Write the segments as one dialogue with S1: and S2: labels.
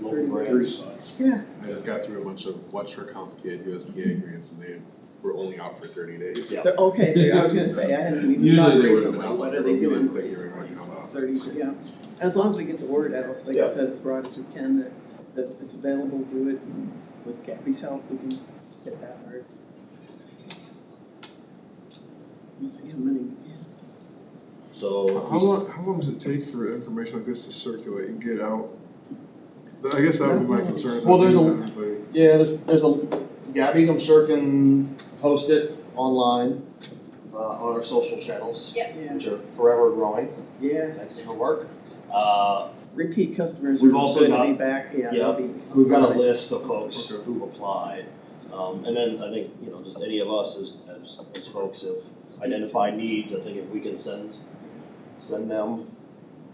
S1: local grants.
S2: Yeah.
S3: I just got through a bunch of much more complicated USDA grants and they were only out for thirty days.
S1: Yeah.
S2: They're- okay, they- I was gonna say, I hadn't even
S3: Usually
S2: thought
S3: they would've
S2: recently,
S3: been
S2: what
S3: out by
S2: are
S3: now,
S2: they
S3: but we
S2: doing
S3: didn't think they were
S2: recently,
S3: gonna
S2: so
S3: come out.
S2: thirty, yeah. As long as we get the word out, like I
S1: Yeah.
S2: said, as broad as we can, that, that it's available, do it, and with Gabby's help, we can get that word. We'll see how many, we get.
S1: So if we
S4: How
S1: s-
S4: long, how long does it take for information like this to circulate and get out? I guess that would be my concern. is
S1: Well,
S4: that
S1: there's a-
S4: everybody- uh,
S1: yeah, there's, there's a, Gabby, I'm sure can post it online, uh, on our social channels,
S2: yeah,
S1: which are forever growing,
S2: yes,
S1: thanks to her work. Uh,
S2: repeat customers are
S1: We've also
S2: good to be
S1: got-
S2: back, yeah,
S1: yeah,
S2: they'll be.
S1: we've got a list of folks
S4: Okay.
S1: who've applied, um, and then I think, you know, just any of us as, as, as folks have identified needs, I think if we can send, send them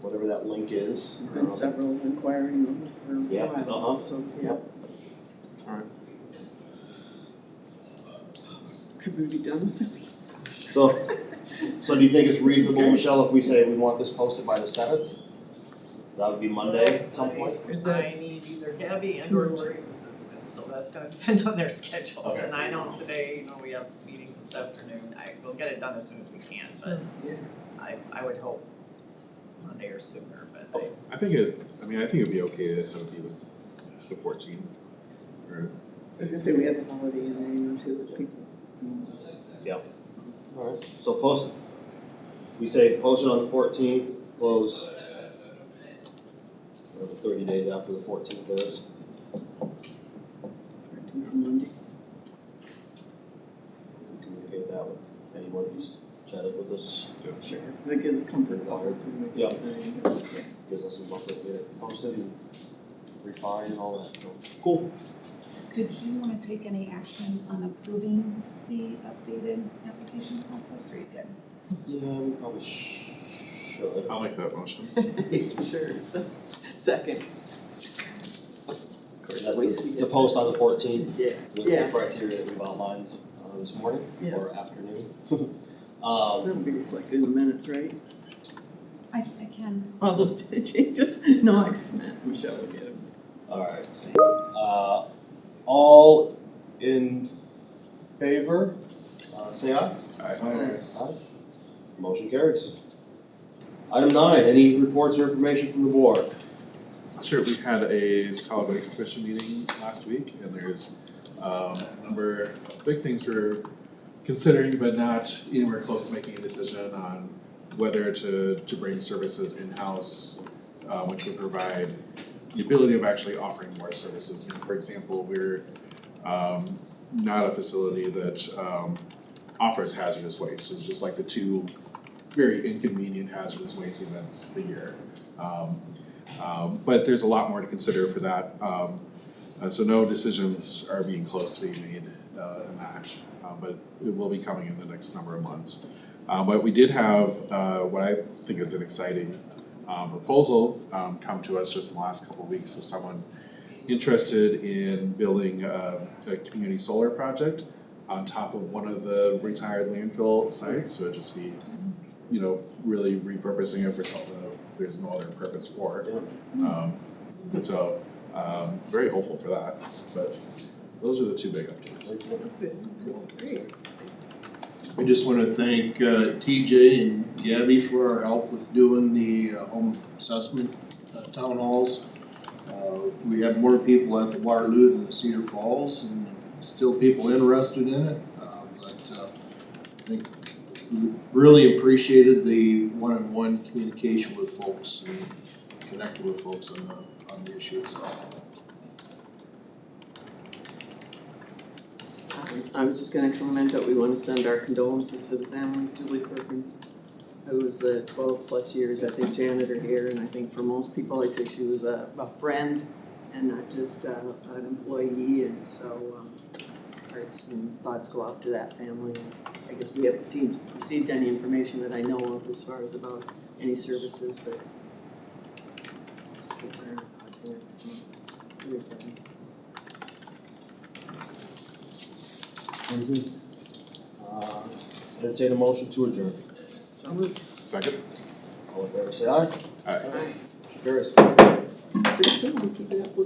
S1: whatever that link is.
S2: There've Been
S1: um,
S2: several inquiring for a
S1: Yeah,
S2: while,
S1: uh-huh.
S2: so, yeah.
S4: Alright.
S2: Could we be done with it?
S1: So, so do you think it's reasonable, Michelle, if we say we want this posted by the seventh? That would be Monday at some point?
S2: Is
S5: I
S2: that-
S5: need either Gabby and
S2: Two
S5: or
S2: words.
S5: Lori's assistance, so that's gonna depend on their schedules,
S1: Okay.
S5: and I know today, you know, we have meetings this afternoon, I, we'll get it done as soon as we can, but
S2: Yeah.
S5: I, I would hope Monday or sooner, but I,
S3: I think it, I mean, I think it'd be okay to have it be the, the fourteenth. Or,
S2: I was gonna say, we had the holiday in there, you know, too, with people.
S1: Alright, so post, if we say post it on the fourteenth, close whatever thirty days after the fourteenth is.
S2: Fourteenth and Monday.
S1: we can Communicate that with anyone who's chatted with us,
S2: Sure. That gives comfort level to me.
S1: Yeah.
S2: Yeah.
S1: gives us some buffer to get it posted and refined and all that, so.
S6: Did you want to take any action on approving the updated application process, or you good?
S1: Yeah, we probably sh- should.
S3: I'll make that motion.
S2: Sure, so, second. Of course,
S1: That's
S2: we
S1: the-
S2: see
S1: to
S2: it.
S1: post on the fourteenth.
S2: Yeah.
S1: with the
S2: Yeah.
S1: criteria that we've outlined uh, this morning
S2: Yeah.
S1: or afternoon. Um,
S2: That'll be reflected in the minutes, right?
S6: I, I can.
S2: All those changes? No, I just meant Michelle would get them.
S1: alright, uh, all in favor, uh, say aye.
S4: I-
S1: Aye. Motion carries. Item nine, any reports or information from the board?
S3: Sure, we had a solid waste commission meeting last week and there's um a number of big things we're considering, but not anywhere close to making a decision on whether to to bring services in-house, uh which would provide the ability of actually offering more services. You know, For example, we're um not a facility that um offers hazardous waste, so it's just like the two very inconvenient hazardous waste events a year. Um um, but there's a lot more to consider for that. Um, uh, so no decisions are being close to being made, uh, in that, uh, but it will be coming in the next number of months. Uh, but we did have, uh, what I think is an exciting, um, proposal, um, come to us just in the last couple of weeks of someone interested in building a, a community solar project on top of one of the retired landfill sites, so it'd just be, you know, really repurposing it for something that there's no other purpose for. it. Um, and so, um, very hopeful for that, but those are the two big updates.
S5: that's good, that's great.
S7: I just want to thank uh, TJ and Gabby for our help with doing the uh, home assessment uh, town halls. Uh, We have more people at the Waterloo than the Cedar Falls and still people interested in it. Uh, But uh, I think we really appreciated the one-on-one communication with folks and connecting with folks on the, on the issue itself.
S2: I was just gonna comment that we wanna send our condolences to the family of Julie Perkins, who was a twelve-plus years, I think, janitor here, and I think for most people, I'd say she was a, a friend and not just uh, an employee, and so, um, hearts and thoughts go out to that family. I guess we haven't seen, received any information that I know of as far as about any services, but just keep our thoughts and everything. Very sad.
S1: Uh, entertain a motion to adjourn.
S2: So moved.
S3: Second?
S1: All in favor, say aye.
S3: Aye.
S1: Motion carries.
S2: Pretty soon, we keep it up with